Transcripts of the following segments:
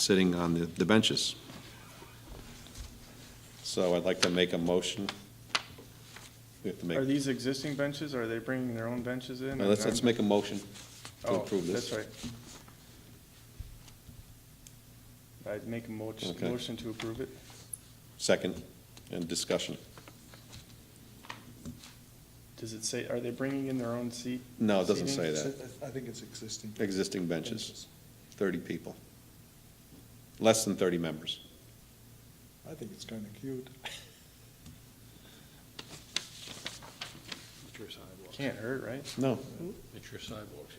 sitting on the- the benches. So I'd like to make a motion. We have to make, Are these existing benches, are they bringing their own benches in? Now, let's, let's make a motion to Oh, approve this. That's right. I'd make a mo- Okay. motion to approve it. Second, and discussion. Does it say, are they bringing in their own seat? No, it doesn't say seating? that. I think it's existing. Existing benches, 30 people. Less than 30 members. I think it's kind of cute. It's your sidewalks. Can't hurt, right? No, It's your sidewalks.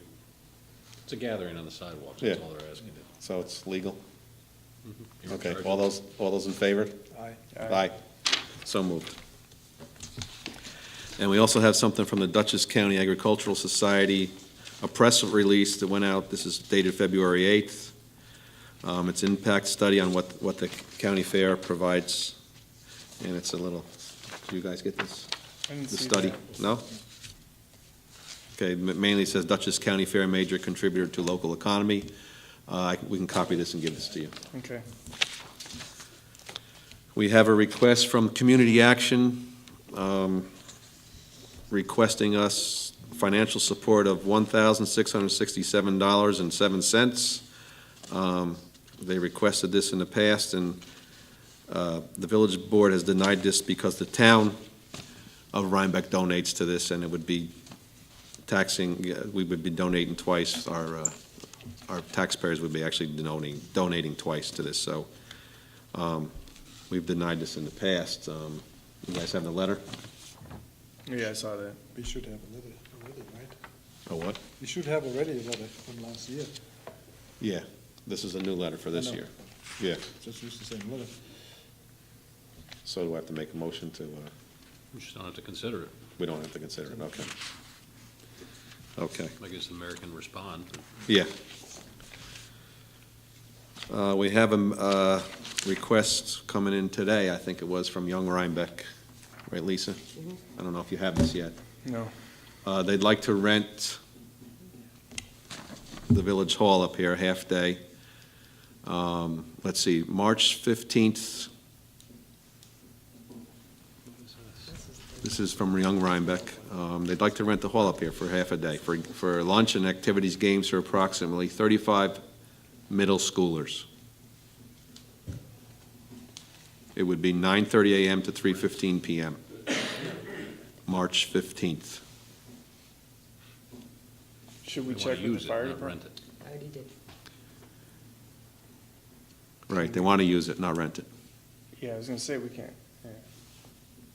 It's a gathering on the sidewalks, Yeah. that's all they're asking. to- so it's legal? You're in Okay, charge all of- those, all those in favor? Aye. Aye. So moved. And we also have something from the Dutchess County Agricultural Society, a press release that went out, this is dated February 8th. Um, It's impact study on what, what the county fair provides, and it's a little, do you guys get this? I didn't The see study, that. no? Okay, ma- mainly says Dutchess County Fair major contributor to local economy. Uh, I- We can copy this and give this to you. Okay. We have a request from Community Action um, requesting us financial support of $1,667.07. Um, They requested this in the past, and uh, the village board has denied this because the town of Rhinebeck donates to this, and it would be taxing, uh, we would be donating twice, our, uh, our taxpayers would be actually donating, donating twice to this, so We've denied this in the past. Um, You guys have the letter? Yeah, I saw that. We should have a letter already, right? Oh, what? We should have already a letter from last year. Yeah, this is a new letter for this I know. year. Yeah, Just use the same letter. so do I have to make a motion to, uh, You just don't have to consider it. we don't have to consider it, okay. Okay, I guess the mayor can respond. yeah. Uh, We have a m- uh, request coming in today, I think it was, from Young Rhinebeck, right, Lisa? Mm-hmm. I don't know if you have this yet. No. Uh, They'd like to rent the Village Hall up here, half-day. Let's see, March 15th, this is from Young Rhinebeck. Um, They'd like to rent the hall up here for half a day, for for lunch and activities, games for approximately 35 middle schoolers. It would be 9:30 a.m. to 3:15 p.m., March 15th. Should we They wanna check with use the it, fire not rent department? it. I already did. Right, they want to use it, not rent it. Yeah, I was gonna say, we can't.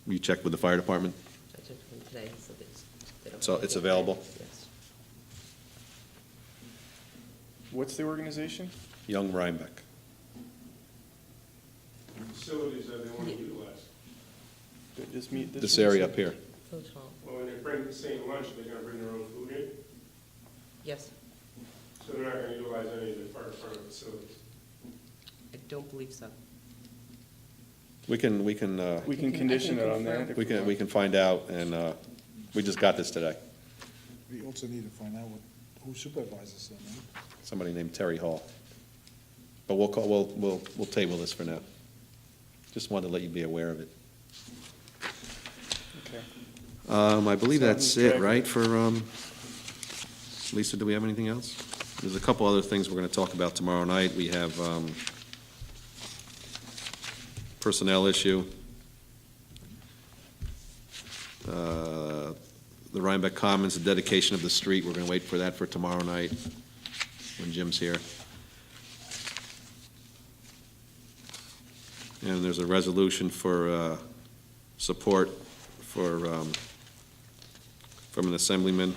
You checked with the fire department? I took them today, so it's. they don't- So it's available? Yes. What's the organization? Young Rhinebeck. facilities that they want to utilize. They Just meet this. This week? area up here. Food hall, Well, when they bring the same lunch, they're gonna bring their own food in, yes. so they're not gonna utilize any of the fire department facilities. I don't believe so. We can, we can, uh, We I can can condition it on confirm. that. if we can, we want. can find out, and uh, we just got this today. We also need to find out what, who supervises them, right? Somebody named Terry Hall. But we'll call, we'll, we'll, we'll table this for now. Just wanted to let you be aware of it. Okay. Um, I believe Sounds that's it, good. right, for, um, Lisa, do we have anything else? There's a couple other things we're gonna talk about tomorrow night. We have, um, personnel issue. Uh, The Rhinebeck Commons, the dedication of the street, we're gonna wait for that for tomorrow night when Jim's here. And there's a resolution for, uh, support for, um, from an assemblyman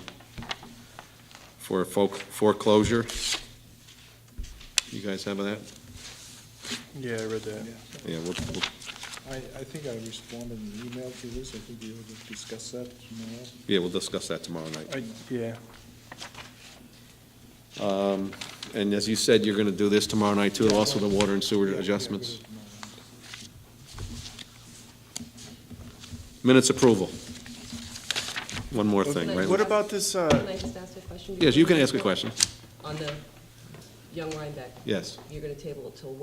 for folk- foreclosure. You guys have that? Yeah, I read that. Yeah. Yeah, we'll, we'll- I, I think I responded in the email to this. I think we ought to discuss that tomorrow. yeah, we'll discuss that tomorrow I, night. yeah. And as you said, you're gonna do this tomorrow night too, also the water and Yeah, sewer yeah, adjustments. we'll do it tomorrow. Minutes approval. One more thing, Okay. right? What about this, Can uh, I just ask a question? Yes, you can ask a before- question. On the Young Rhinebeck, Yes. you're gonna table it till